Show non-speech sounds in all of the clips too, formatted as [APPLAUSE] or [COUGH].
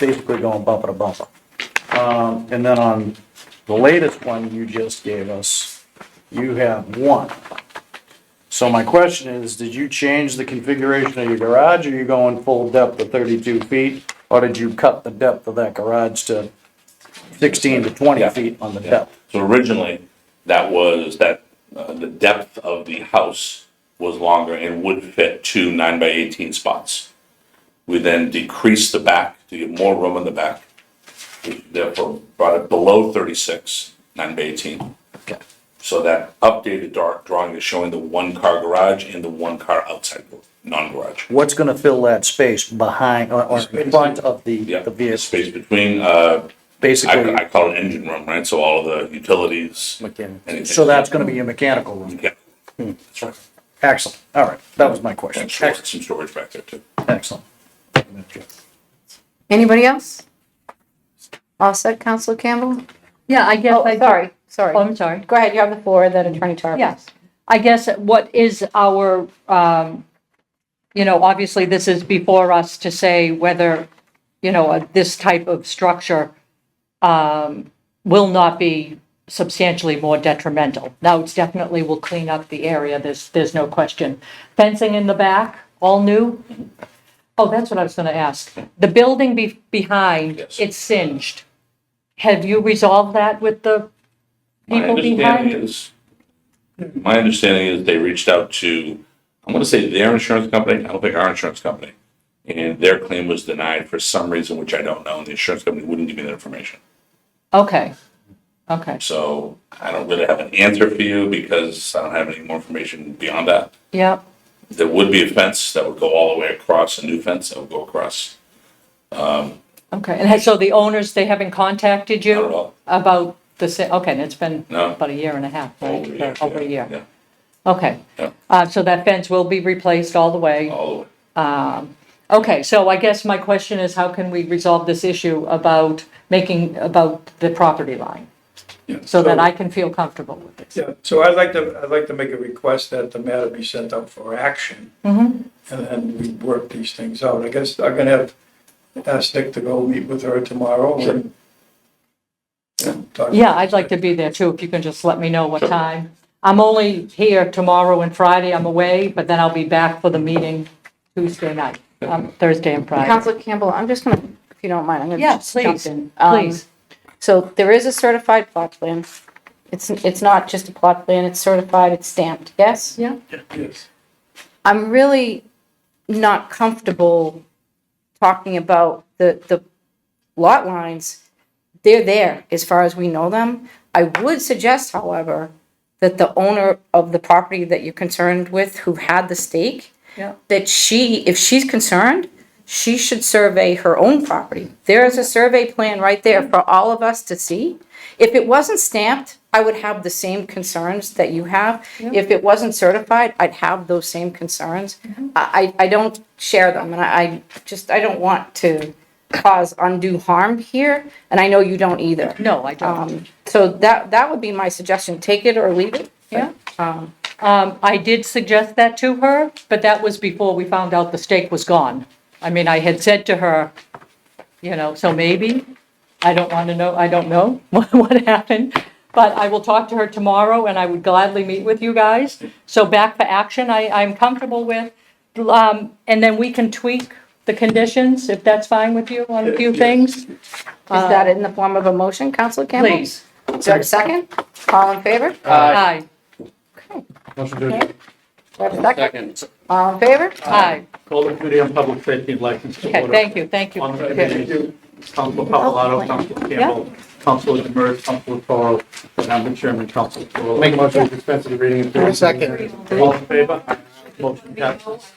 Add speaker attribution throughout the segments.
Speaker 1: basically going bumper to bumper. Um, and then on the latest one you just gave us, you have one. So my question is, did you change the configuration of your garage, or are you going full depth of thirty-two feet? Or did you cut the depth of that garage to sixteen to twenty
Speaker 2: Yeah.
Speaker 1: feet on the
Speaker 2: Yeah.
Speaker 1: depth?
Speaker 2: So originally, that was, that, uh, the depth of the house was longer and would fit two nine by eighteen spots. We then decreased the back to get more room in the back, which therefore brought it below thirty-six, nine by eighteen.
Speaker 1: Okay.
Speaker 2: So that updated dark drawing is showing the one-car garage and the one-car outside, non-garage.
Speaker 1: What's gonna fill that space behind, or, or in front of the,
Speaker 2: Yeah,
Speaker 1: the
Speaker 2: the
Speaker 1: vehicle,
Speaker 2: space between, uh,
Speaker 1: basically?
Speaker 2: I, I call it engine room, right? So all of the utilities.
Speaker 1: mechanical.
Speaker 2: anything.
Speaker 1: So that's gonna Hmm. be your mechanical room.
Speaker 2: Yeah. That's right.
Speaker 1: Excellent, all right, that was my question.
Speaker 2: And sure,
Speaker 1: Excellent,
Speaker 2: some storage back there too.
Speaker 1: excellent.
Speaker 3: Anybody else? All set, Counselor Campbell?
Speaker 4: Yeah, I guess.
Speaker 3: Oh,
Speaker 4: I ju-
Speaker 3: sorry,
Speaker 4: Oh,
Speaker 3: sorry.
Speaker 4: I'm sorry.
Speaker 3: Go ahead, you have the floor, then Attorney Tarver.
Speaker 4: Yes. I guess what is our, um, you know, obviously, this is before us to say whether, you know, uh, this type of structure um, will not be substantially more detrimental. Now, it's definitely will clean up the area, there's, there's no question. Fencing in the back, all new? Oh, that's what I was going to ask. The building be- behind,
Speaker 2: Yes.
Speaker 4: it's singed. Have you resolved that with the
Speaker 2: My
Speaker 4: people behind?
Speaker 2: understanding is, my understanding is they reached out to, I'm gonna say their insurance company, I don't think our insurance company. And their claim was denied for some reason, which I don't know, and the insurance company wouldn't give me that information.
Speaker 4: Okay, okay,
Speaker 2: So I don't really have an answer for you because I don't have any more information beyond that.
Speaker 4: yeah,
Speaker 2: There would be a fence that would go all the way across, a new fence that would go across.
Speaker 4: okay. And so the owners, they haven't contacted
Speaker 2: Not at
Speaker 4: you
Speaker 2: all.
Speaker 4: about the, sa- okay, and it's been
Speaker 2: No.
Speaker 4: about a year and a half, right?
Speaker 2: Over a year,
Speaker 4: Or Over a
Speaker 2: yeah,
Speaker 4: year,
Speaker 2: Yeah,
Speaker 4: okay.
Speaker 2: Yeah.
Speaker 4: Uh, so that fence will be replaced all the way.
Speaker 2: all the way. Oh.
Speaker 4: Okay, so I guess my question is how can we resolve this issue about making, about the property line?
Speaker 2: Yeah.
Speaker 4: So that I can feel comfortable with this.
Speaker 5: Yeah, so I'd like to, I'd like to make a request that the matter be sent out for action. And then we work these things out. I guess I'm gonna have, ask Nick to go meet with her tomorrow and. and talk-
Speaker 4: Yeah, I'd like to be there too, if you can just let me know what
Speaker 2: Sure.
Speaker 4: time. I'm only here tomorrow and Friday, I'm away, but then I'll be back for the meeting Tuesday night, um, Thursday and Friday.
Speaker 3: Counselor Campbell, I'm just gonna, if you don't mind, I'm gonna
Speaker 4: Yeah,
Speaker 3: just jump
Speaker 4: please,
Speaker 3: in. Um,
Speaker 4: please.
Speaker 3: So there is a certified plot plan. It's, it's not just a plot plan, it's certified, it's stamped, yes?
Speaker 4: Yeah.
Speaker 5: Yes.
Speaker 3: I'm really not comfortable talking about the, the lot lines. They're there as far as we know them. I would suggest, however, that the owner of the property that you're concerned with who had the stake,
Speaker 4: Yeah.
Speaker 3: that she, if she's concerned, she should survey her own property. There is a survey plan right there for all of us to see. If it wasn't stamped, I would have the same concerns that you have. If it wasn't certified, I'd have those same concerns.
Speaker 4: Mm-hmm.
Speaker 3: I, I I don't share them, and I, I just, I don't want to cause undue harm here, and I know you don't either.
Speaker 4: No, I don't.
Speaker 3: Um, so that, that would be my suggestion, take it or leave it.
Speaker 4: Yeah. Um, I did suggest that to her, but that was before we found out the stake was gone. I mean, I had said to her, you know, so maybe, I don't want to know, I don't know [LAUGHS] what what happened. But I will talk to her tomorrow and I would gladly meet with you guys. So back for action, I, I'm comfortable with. Um, and then we can tweak the conditions if that's fine with you on a few
Speaker 5: Yes.
Speaker 4: things,
Speaker 3: Is that in the form of a motion, Counselor Campbell?
Speaker 4: Uh, please.
Speaker 3: Is there a second? All in favor? Do
Speaker 4: Aye,
Speaker 6: Motion to adjourn.
Speaker 3: I have a second?
Speaker 6: Second.
Speaker 3: All in favor?
Speaker 4: aye.
Speaker 6: Call the committee on public safety and license to
Speaker 4: Okay,
Speaker 6: order.
Speaker 4: thank you, thank you.
Speaker 6: On the
Speaker 4: Okay.
Speaker 6: committee, Council Papalato, Council Campbell, Council Demers, Council Toro, and I'm the chairman, Council Toro. Make a motion to dispense with the reading and third. Second. All in favor? Motion passes.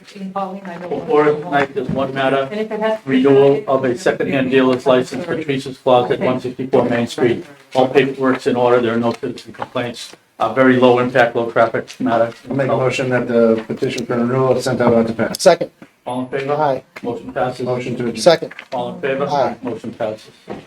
Speaker 6: Before us tonight, there's one matter,
Speaker 4: And if it has.
Speaker 6: renewal of a secondhand dealer's license for Teresa's Closet, 164 Main Street. All paperwork's in order, there are no citizen complaints, a very low impact, low traffic matter.
Speaker 7: I'll make a motion that the petition for renewal is sent out on to pass.
Speaker 8: Second.
Speaker 6: All in favor?
Speaker 8: Aye.
Speaker 6: Motion passes.
Speaker 7: Motion to adjourn.
Speaker 8: Second.
Speaker 6: All in favor?
Speaker 8: Aye.
Speaker 6: Motion passes.